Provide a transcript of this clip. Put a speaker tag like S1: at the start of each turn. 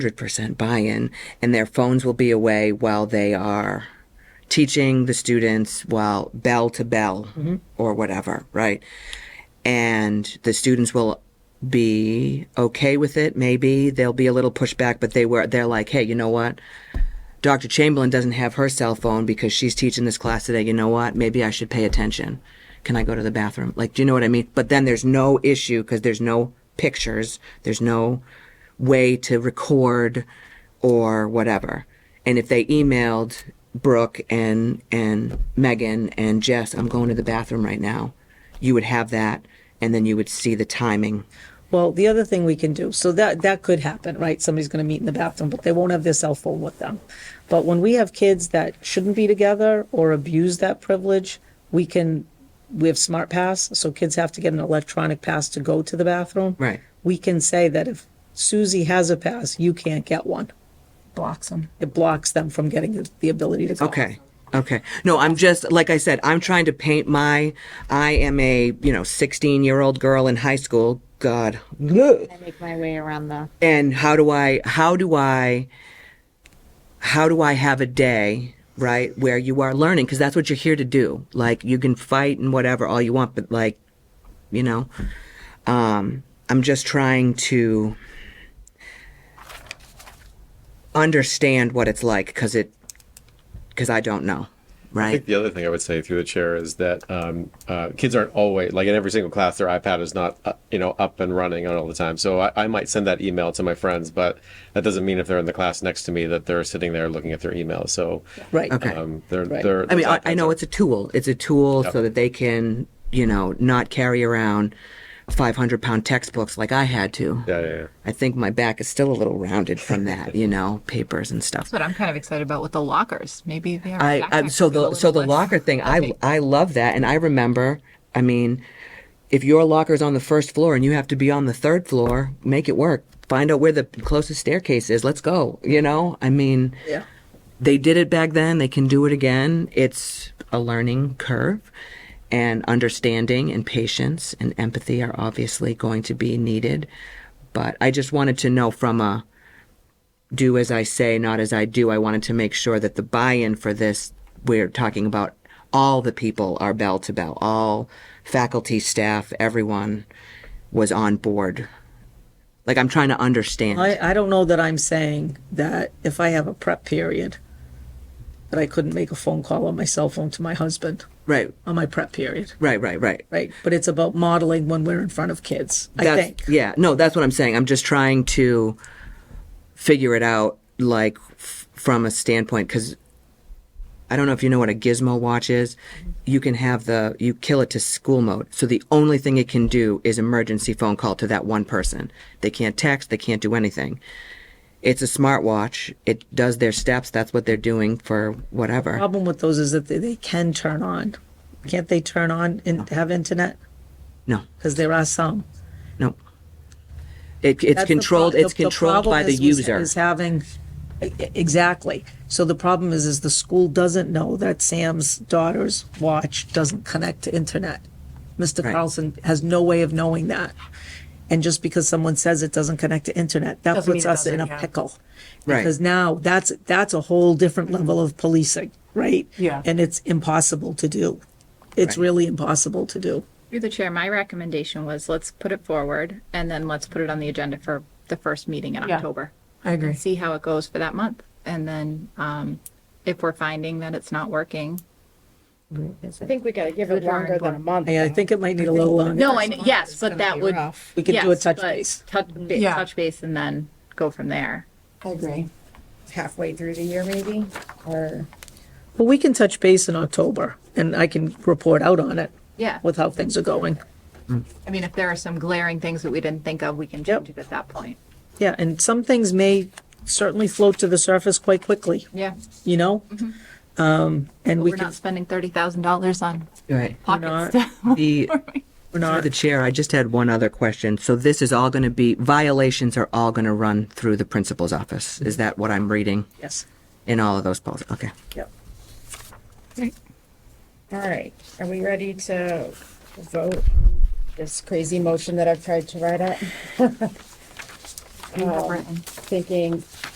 S1: hundred percent buy-in, and their phones will be away while they are teaching the students while bell to bell or whatever, right? And the students will be okay with it. Maybe there'll be a little pushback, but they were they're like, hey, you know what? Dr. Chamberlain doesn't have her cell phone because she's teaching this class today. You know what? Maybe I should pay attention. Can I go to the bathroom? Like, do you know what I mean? But then there's no issue because there's no pictures, there's no way to record or whatever. And if they emailed Brooke and and Megan and Jess, I'm going to the bathroom right now, you would have that, and then you would see the timing.
S2: Well, the other thing we can do, so that, that could happen, right? Somebody's gonna meet in the bathroom, but they won't have their cell phone with them. But when we have kids that shouldn't be together or abuse that privilege, we can, we have smart pass, so kids have to get an electronic pass to go to the bathroom.
S1: Right.
S2: We can say that if Susie has a pass, you can't get one.
S3: blocks them.
S2: It blocks them from getting the- the ability to go.
S1: Okay. Okay. No, I'm just like I said, I'm trying to paint my I am a, you know, 16-year-old girl in high school. God. Ugh.
S3: I make my way around the.
S1: And how do I how do I how do I have a day, right, where you are learning because that's what you're here to do. Like you can fight and whatever all you want, but like you know, um I'm just trying to understand what it's like cuz it cuz I don't know,
S4: I
S1: right?
S4: think the other thing I would say through the chair is that um, uh, kids aren't always like in every single class their iPad is not uh, you know up and running all the time. So I, I might send that email to my friends, but that doesn't mean if they're in the class next to me that they're sitting there looking at their email. So
S2: Right.
S1: Okay.
S4: um, they're
S2: Right.
S4: they're.
S1: I mean, I,
S4: those
S1: I
S4: iPads
S1: know
S4: are-
S1: it's a tool. It's a tool so that they can, you know, not carry around 500 pound textbooks like I had to.
S4: Yeah, yeah, yeah.
S1: I think my back is still a little rounded from that, you know, papers and stuff.
S3: But I'm kind of excited about with the lockers. Maybe they are.
S1: I, I
S3: backpacks
S1: so
S3: will be a
S1: the
S3: little
S1: so the
S3: less-
S1: locker thing. I I love that, and I remember. I mean, if your locker's on the first floor and you have to be on the third floor, make it work. Find out where the closest staircase is. Let's go. You know, I mean,
S2: Yeah.
S1: they did it back then. They can do it again. It's a learning curve, and understanding and patience and empathy are obviously going to be needed. But I just wanted to know from a do as I say, not as I do. I wanted to make sure that the buy in for this, we're talking about all the people are bell to bell, all faculty, staff, everyone was on board. Like, I'm trying to understand.
S2: I, I don't know that I'm saying that if I have a prep period, that I couldn't make a phone call on my cell phone to my husband
S1: right,
S2: on my prep period,
S1: right, right, right.
S2: right? But it's about modeling when we're in front of kids, I
S1: That's-
S2: think.
S1: Yeah, no, that's what I'm saying. I'm just trying to figure it out, like f- from a standpoint, because I don't know if you know what a gizmo watch is. You can have the you kill it to school mode, so the only thing it can do is emergency phone call to that one person. They can't text. They can't do anything. It's a smartwatch. It does their steps. That's what they're doing for whatever.
S2: Problem with those is that they, they can turn on. Can't they turn on and have internet?
S1: No,
S2: Because there are some.
S1: no. It, it's
S2: That's the pro-
S1: controlled. it's
S2: the- the
S1: controlled by
S2: problem
S1: the
S2: is was-
S1: user.
S2: Is having, e- e- exactly. So the problem is, is the school doesn't know that Sam's daughter's watch doesn't connect to internet. Mr. Carlson has no way of knowing that. And just because someone says it doesn't connect to internet, that
S3: Doesn't mean
S2: puts
S3: it
S2: us in
S3: doesn't,
S2: a
S3: yeah.
S2: pickle.
S1: Right.
S2: Because now that's, that's a whole different level of policing, right?
S5: Yeah.
S2: And it's impossible to do. It's really impossible to do.
S3: Through the chair, my recommendation was let's put it forward and then let's put it on the agenda for the first meeting in
S5: Yeah.
S3: October.
S5: I agree.
S3: and see how it goes for that month. And then um, if we're finding that it's not working.
S6: I think we gotta give it longer than a month.
S2: I I
S6: though.
S2: think it might need a little longer.
S3: No, I, yes, but that would.
S2: We could do a
S3: yes,
S2: touch
S3: but
S2: base.
S3: Touch, ba-
S5: Yeah.
S3: touch base and then go from there.
S6: I agree. Halfway through the year maybe, or
S2: Well, we can touch base in October and I can report out on it
S3: Yeah.
S2: with how things are going.
S3: I mean, if there are some glaring things that we didn't think of, we can change it at that point.
S2: Yeah, and some things may certainly float to the surface quite quickly,
S3: Yeah. Mm-hmm.
S2: you know? Um, and we
S3: We're
S2: can,
S3: not spending $30,000 on
S1: right.
S3: pocket
S2: not.
S3: stuff.
S1: The
S2: we're
S1: Through
S2: not,
S1: the chair, I just had one other question. So this is all going to be, violations are all going to run through the principal's office. Is that what I'm reading
S2: yes,
S1: in all of those polls? Okay.
S2: yep.
S6: All right, are we ready to vote on this crazy motion that I've tried to write up? um, thinking